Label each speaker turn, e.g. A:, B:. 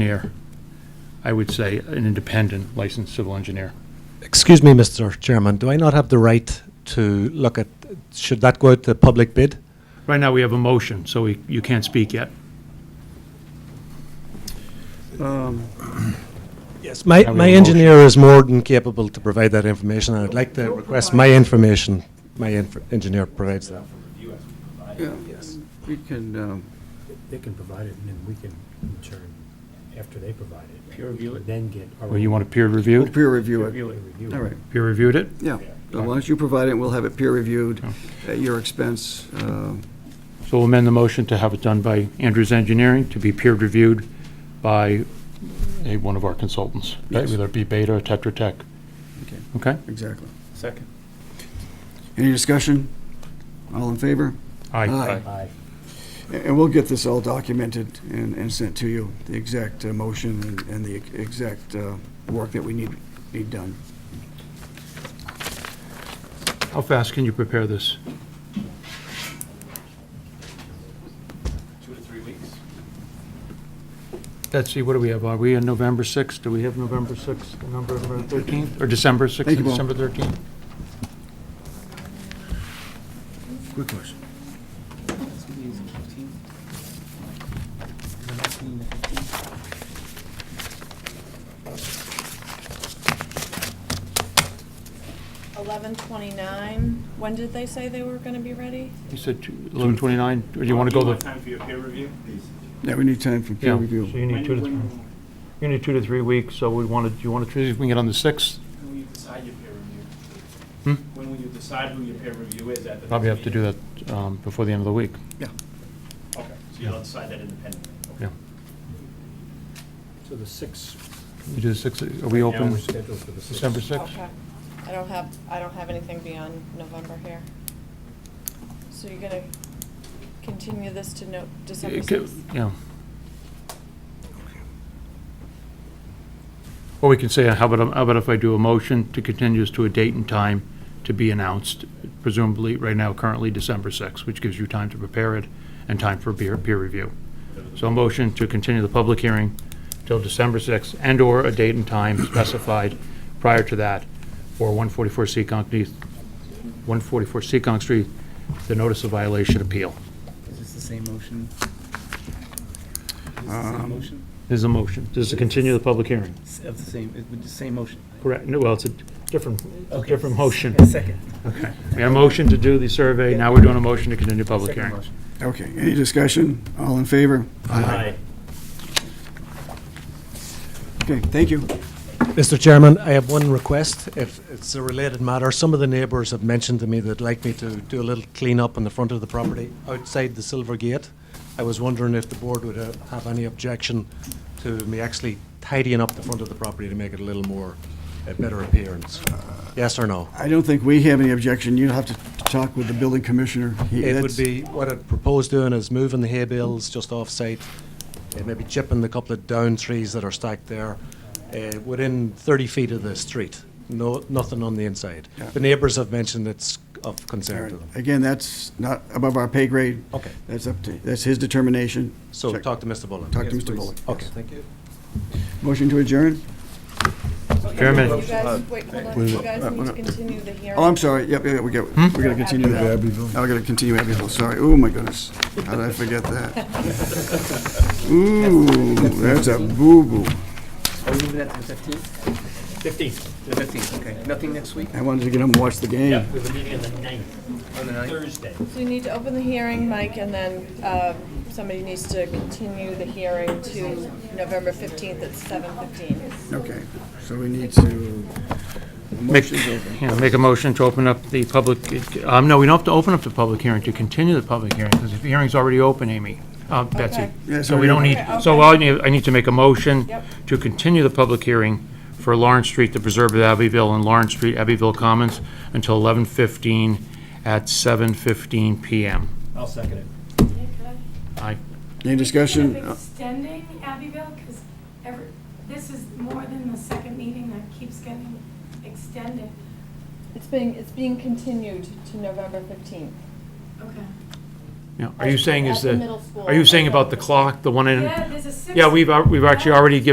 A: engineer, I would say an independent licensed civil engineer.
B: Excuse me, Mr. Chairman, do I not have the right to look at, should that go out to public bid?
A: Right now, we have a motion, so we- you can't speak yet.
B: Yes. My,
A: Have we
B: my
A: a motion?
B: engineer is more than capable to provide that information, and I'd like to request my information, my inf- engineer provides that.
C: Yeah, We can, um,
D: They can provide it, and then we can, in turn, after they provide it.
E: Peer review it?
D: Then get. our
A: Well, you want it peer
C: we'll
A: reviewed?
C: peer review it.
E: Review it.
D: review.
C: All right,
A: Peer reviewed it?
C: yeah. As long as you provide it, we'll have it peer reviewed at your expense. Um,
A: So we'll amend the motion to have it done by Andrews Engineering, to be peer reviewed by a, one of our consultants. right?
C: Yes.
A: Whether it be Beta or Tetra Tech.
C: Okay,
A: Okay?
C: exactly.
E: Second.
C: Any discussion? All in favor? Aye.
D: Aye.
C: A- And we'll get this all documented and, and sent to you, the exact uh, motion and- and the exact uh, work that we need, need done.
A: How fast can you prepare this?
E: Two to three weeks.
A: Let's see, what do we have? Are we in November 6th? Do we have November 6th, November 13th, or December 6th?
C: Thank you, Paul.
A: December 13th?
C: Quick question.
F: Eleven twenty-nine, when did they say they were gonna be ready?
A: You said two- 11/29, or do you want to go the?
E: Time for your peer review?
C: Yeah, we need time for peer
A: Yeah,
C: review.
A: so you need two to three. You need two to three weeks, so we wanted, do you want to, choose if we can get on the 6th?
E: When will you decide your peer
A: Hmm?
E: review? When will you decide who your peer review is at the?
A: Probably
E: next
A: have to do
E: meeting?
A: that um, before the end of the week.
E: Okay, so you'll decide that independently. Okay.
A: Yeah.
D: So the sixth,
A: We do the 6th, are we
E: Right now,
A: open
D: we're scheduled for the sixth.
A: December 6th?
F: Okay. I don't have, I don't have anything beyond November here. So you're gonna continue this to no, December sixth?
A: Yeah. Or we can say, how about, how about if I do a motion to continue this to a date and time to be announced, presumably, right now, currently December 6th, which gives you time to prepare it and time for peer, peer review. So a motion to continue the public hearing till December 6th and/or a date and time specified prior to that for 144 Seccong, 144 Seccong Street, the notice of violation appeal.
G: Is this the same motion? Is this the
C: Um,
G: same motion?
A: There's a motion. This is to continue the public hearing.
G: S- Of the same, it would the same motion?
A: Correct, no, well, it's a different, it's a
G: Okay.
A: different motion.
G: A Second.
A: We had a motion to do the survey, now we're doing a motion to continue public
G: Second
A: hearing.
G: motion.
C: Okay, any discussion? All in favor?
E: Aye.
C: Okay, thank you.
B: Mr. Chairman, I have one request, if it's a related matter. Some of the neighbours have mentioned to me they'd like me to do a little clean-up on the front of the property outside the Silver Gate. I was wondering if the board would uh, have any objection to me actually tidying up the front of the property to make it a little more, a better appearance. Yes or no?
C: I don't think we have any objection. You'll have to talk with the building commissioner. He-
B: It
C: that's-
B: would be, what I'd propose doing is moving the hay bales just off-site, eh, maybe chipping the couple of down trees that are stacked there, eh, within 30 feet of the street, no, nothing on the inside. The neighbours have mentioned it's of concern to them.
C: Again, that's not above our pay grade.
B: Okay.
C: That's up to, that's his determination.
B: So
C: Check-
B: talk to Mr. Bullen.
C: Talk to
G: Yes,
C: Mr.
G: please.
C: Bullock.
B: Okay, thank you.
C: Motion to adjourn?
F: You
A: Chairman,
F: guys, wait, hold on, you guys need to continue the hearing.
C: Oh, I'm sorry, yep, yeah, we got, we're
B: Hmm?
C: gonna continue that. Oh, we gotta continue Abbeville, sorry. Oh, my goodness. How did I forget that? Ooh, that's a boo-boo.
G: Are we moving that to the fifteenth?
E: Fifteenth,
G: The fifteenth, okay. Nothing next week
C: I wanted to get home and watch the game.
E: we have a meeting on the ninth,
G: on the ninth?
E: Thursday.
F: So you need to open the hearing, Mike, and then, um, somebody needs to continue the hearing to November fifteenth at seven fifteen.
C: Okay, so we need to, the
A: make,
C: motion's over.
A: yeah, make a motion to open up the public, um, no, we don't have to open up the public hearing, to continue the public hearing, because the hearing's already open, Amy, uh, Betsy.
F: Okay.
C: Yeah, it's
A: So we don't
C: already
A: need,
F: open.
A: so I need, I need to make a motion
F: Yep.
A: to continue the public hearing for Lawrence Street, the Preserve of Abbeville, and Lawrence Street, Abbeville Commons, until 11:15 at 7:15 PM.
E: I'll second it.
A: Aye.
C: Any discussion?
H: Speaking of extending Abbeville, because every, this is more than the second meeting that keeps getting extended.
F: It's being, it's being continued to November fifteenth.
H: Okay.
A: Yeah, are you saying is
I: At the
A: the,
I: middle school.
A: are you saying about the clock, the one in?
F: Yeah, there's a six.
A: Yeah, we've, al- we've actually already given